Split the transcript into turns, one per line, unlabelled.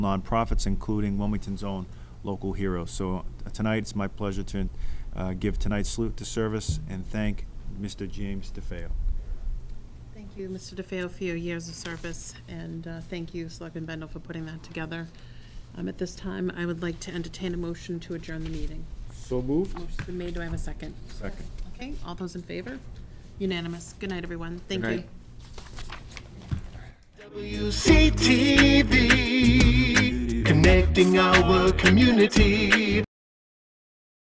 nonprofits, including Wilmington's own local heroes. So uh, tonight, it's my pleasure to uh, give tonight's salute to service and thank Mr. James DeFeo.
Thank you, Mr. DeFeo, for your years of service, and uh, thank you, Selectman Bendel, for putting that together. Um, At this time, I would like to entertain a motion to adjourn the meeting.
So moved.
Motion's been made, do I have a second?
Second.
Okay, all those in favor? Unanimous. Good night, everyone. Thank
Good
you.
night.
WCTV, connecting our community.